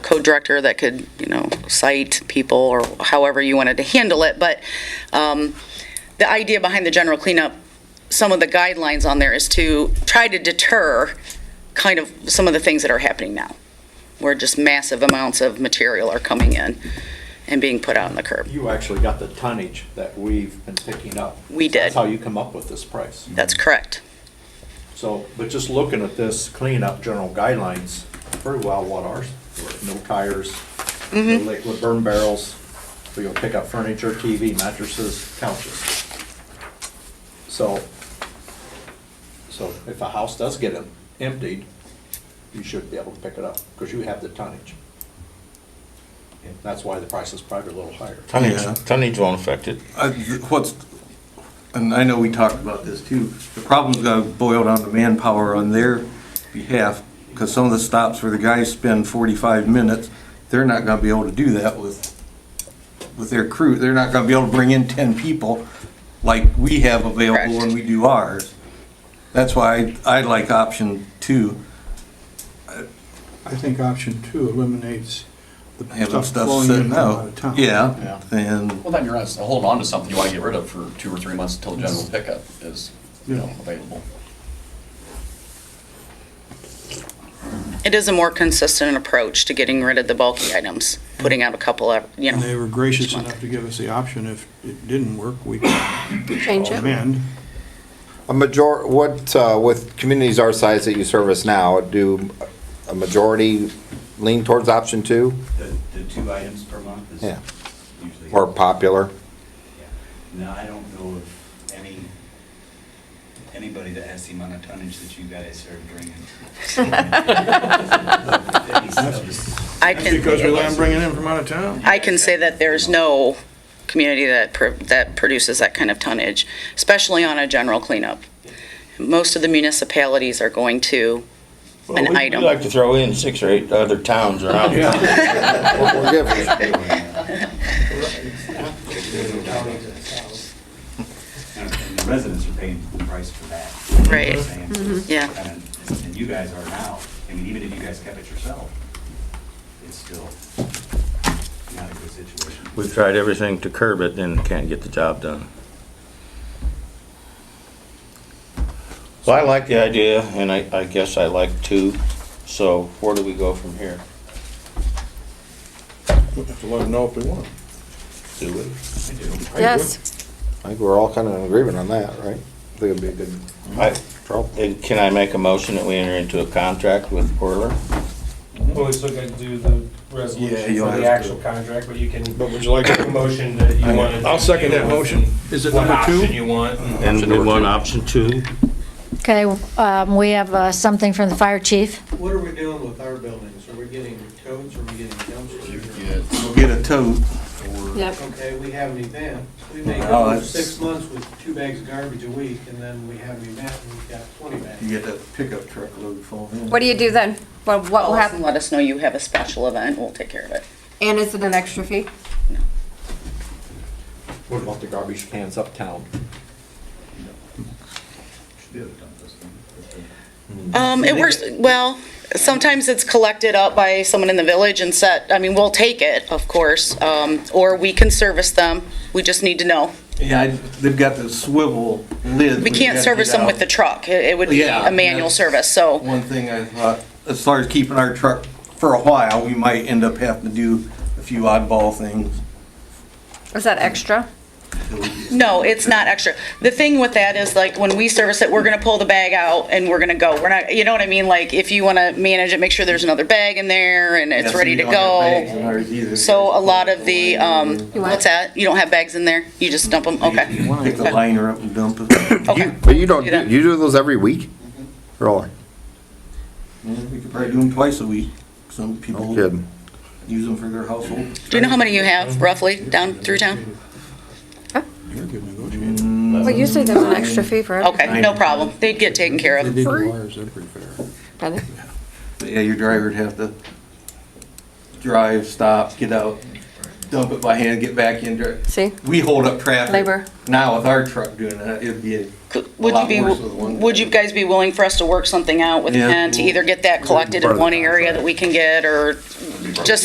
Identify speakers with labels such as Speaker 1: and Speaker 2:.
Speaker 1: director that could, you know, cite people or however you wanted to handle it. But um, the idea behind the general cleanup, some of the guidelines on there is to try to deter kind of some of the things that are happening now, where just massive amounts of material are coming in and being put out on the curb.
Speaker 2: You actually got the tonnage that we've been picking up.
Speaker 1: We did.
Speaker 2: That's how you come up with this price.
Speaker 1: That's correct.
Speaker 2: So, but just looking at this cleanup general guidelines, very well what ours, were. no tires, no
Speaker 1: Mm-hmm.
Speaker 2: liquid burn barrels, we will pick up furniture, TV, mattresses, couches. So, so if a house does get em- emptied, you should be able to pick it up, because you have the tonnage. And that's why the price is probably a little higher.
Speaker 3: Yeah.
Speaker 4: Tonnage, tonnage won't affect it.
Speaker 3: I- Uh, th- What's, and I know we talked about this too, the problem's gonna boil down to manpower on their behalf, because some of the stops where the guys spend forty-five minutes, they're not gonna be able to do that with, with their crew. They're not gonna be able to bring in ten people like we have available when
Speaker 1: Correct.
Speaker 3: we do ours. That's why I, I like option two,
Speaker 5: I think option two eliminates the
Speaker 3: having
Speaker 5: stuff
Speaker 3: stuff
Speaker 5: flowing in
Speaker 3: sitting
Speaker 5: from out
Speaker 3: out.
Speaker 5: of town.
Speaker 3: Yeah, and,
Speaker 6: Well, then you're not holding on to something you want to get rid of for two or three months until general pickup is, you know, available.
Speaker 1: It is a more consistent approach to getting rid of the bulky items, putting out a couple of, you know.
Speaker 5: And they were gracious
Speaker 1: each month.
Speaker 5: enough to give us the option if it didn't work, we could Oh,
Speaker 7: Change it.
Speaker 5: amend.
Speaker 8: A major, what, uh, with communities our size that you service now, do a majority lean towards option two
Speaker 9: The, the two items per month is
Speaker 8: Yeah.
Speaker 9: usually.
Speaker 8: or popular?
Speaker 9: Yeah. No, I don't know of any, anybody that has the amount of tonnage that you guys are bringing. Any subs-
Speaker 1: I can-
Speaker 5: Because we let them bring it in from out of town.
Speaker 1: I can say that there's no community that, pr- that produces that kind of tonnage, especially on a general cleanup. Most of the municipalities are going to an
Speaker 4: Well, we-
Speaker 1: item.
Speaker 4: We like to throw in six or eight other towns around.
Speaker 8: We're giving it.
Speaker 9: And the residents are paying the price for that.
Speaker 1: Right. Mm-hmm.
Speaker 9: You know what I'm saying? So
Speaker 1: Yeah.
Speaker 9: it's kinda- And you guys are now, I mean, even if you guys kept it yourself, it's still not a good situation.
Speaker 4: We've tried everything to curb it and can't get the job done. Well, I like the idea and I, I guess I like two, so where do we go from here?
Speaker 3: have to let them know if they want.
Speaker 4: Do we?
Speaker 7: Yes,
Speaker 8: I think we're all kind of in agreement on that, right? I think it'd be a good
Speaker 4: I,
Speaker 8: trouble.
Speaker 4: and can I make a motion that we enter into a contract with Portland?
Speaker 10: Well, we still got to do the
Speaker 3: Yeah,
Speaker 10: resolution
Speaker 3: you'll
Speaker 10: for
Speaker 3: have
Speaker 10: the
Speaker 3: to.
Speaker 10: actual contract, but you can,
Speaker 5: But would you like
Speaker 10: make a motion that you want. to
Speaker 5: I'll second
Speaker 10: deal
Speaker 5: that
Speaker 10: with
Speaker 5: motion.
Speaker 10: and
Speaker 5: Is it
Speaker 10: What
Speaker 5: number two?
Speaker 10: option you want.
Speaker 3: Mm-hmm.
Speaker 10: and-
Speaker 4: And we want option two?
Speaker 11: Okay, um, we have uh, something from the fire chief.
Speaker 5: What are we doing with our buildings? Are we getting codes? Are we getting dumpsters?
Speaker 3: We'll get a tote.
Speaker 7: yep.
Speaker 5: Okay, we have an event. We may
Speaker 3: go Oh, that's- six
Speaker 5: months with two bags of garbage a week, and then we have an event, and we've got twenty bags.
Speaker 3: You get that pickup truck load full.
Speaker 7: What do you do then? What, what will
Speaker 1: Call us and
Speaker 7: happen?
Speaker 1: let us know you have a special event, we'll take care of it.
Speaker 7: And is it an extra fee?
Speaker 2: What about the garbage cans uptown?
Speaker 9: Should be able to dump this thing.
Speaker 1: Um, it works, well, sometimes it's collected up by someone in the village and set, I mean, we'll take it, of course, um, or we can service them, we just need to know.
Speaker 3: Yeah, I- they've got the swivel lid.
Speaker 1: We can't service them with the truck, it it would be
Speaker 3: Yeah,
Speaker 1: a manual
Speaker 3: that's-
Speaker 1: service, so,
Speaker 3: One thing I thought, as far as keeping our truck for a while, we might end up having to do a few oddball things.
Speaker 7: Is that extra?
Speaker 1: no, it's not extra. The thing with that is like, when we service it, we're gonna pull the bag out and we're gonna go, we're not, you know what I mean? Like, if you wanna manage it, make sure there's another bag in there and it's ready to go. So a lot of the, um,
Speaker 7: You want-
Speaker 1: what's that, you don't have bags in there, you just dump them, okay,
Speaker 3: Pick the liner up and dump it.
Speaker 1: okay.
Speaker 8: But you don't,
Speaker 1: Do that.
Speaker 8: you do those every week?
Speaker 9: Mm-hmm.
Speaker 8: Really?
Speaker 3: We could probably do them twice a week. Some people
Speaker 8: Kidding?
Speaker 3: use them for their household.
Speaker 1: Do you know how many you have roughly down through town?
Speaker 5: You're good negotiator.
Speaker 7: Well, usually there's an extra fee for it.
Speaker 1: Okay, no problem, they'd get taken care
Speaker 5: They
Speaker 1: of.
Speaker 5: did the wires, they're pretty fair.
Speaker 7: Okay.
Speaker 3: Yeah, your driver'd have to drive, stop, get out, dump it by hand, get back in. dri-
Speaker 7: See,
Speaker 3: We hold up traffic.
Speaker 7: Labor.
Speaker 3: Now with our truck doing that, it'd be a
Speaker 1: Could- Would you
Speaker 3: lot
Speaker 1: be,
Speaker 3: worse with one
Speaker 1: would you
Speaker 3: guy.
Speaker 1: guys be willing for us to work something out with
Speaker 3: Yeah.
Speaker 1: Ken to either get that collected in one area that we can get, or just